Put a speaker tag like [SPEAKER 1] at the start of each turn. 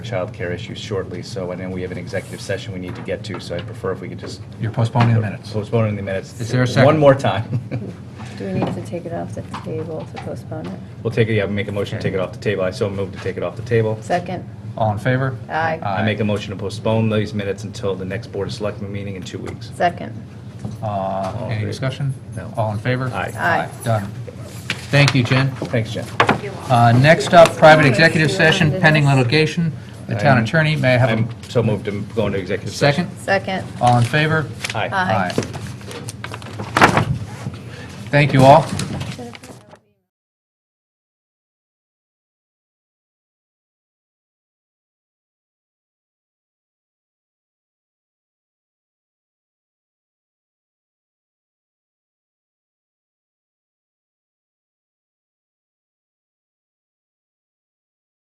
[SPEAKER 1] childcare issues shortly, so, and then we have an executive session we need to get to, so I prefer if we could just
[SPEAKER 2] You're postponing the minutes.
[SPEAKER 1] postpone it in the minutes.
[SPEAKER 2] Is there a second?
[SPEAKER 1] One more time.
[SPEAKER 3] Do we need to take it off the table to postpone it?
[SPEAKER 1] We'll take it, yeah, make a motion to take it off the table. I so move to take it off the table.
[SPEAKER 3] Second?
[SPEAKER 2] All in favor?
[SPEAKER 3] Aye.
[SPEAKER 1] I make a motion to postpone these minutes until the next Board of Selectmen meeting in two weeks.
[SPEAKER 3] Second.
[SPEAKER 2] Uh, Any discussion?
[SPEAKER 1] No.
[SPEAKER 2] All in favor?
[SPEAKER 1] Aye.
[SPEAKER 3] Aye.
[SPEAKER 2] Done. Thank you, Jen.
[SPEAKER 1] Thanks, Jen.
[SPEAKER 2] Uh, Next up, private executive session pending litigation. The town attorney, may I have
[SPEAKER 1] I'm
[SPEAKER 2] a
[SPEAKER 1] so moved to go into executive session.
[SPEAKER 2] second?
[SPEAKER 3] Second.
[SPEAKER 2] All in favor?
[SPEAKER 1] Second? Aye.
[SPEAKER 3] Aye.
[SPEAKER 2] Thank you all.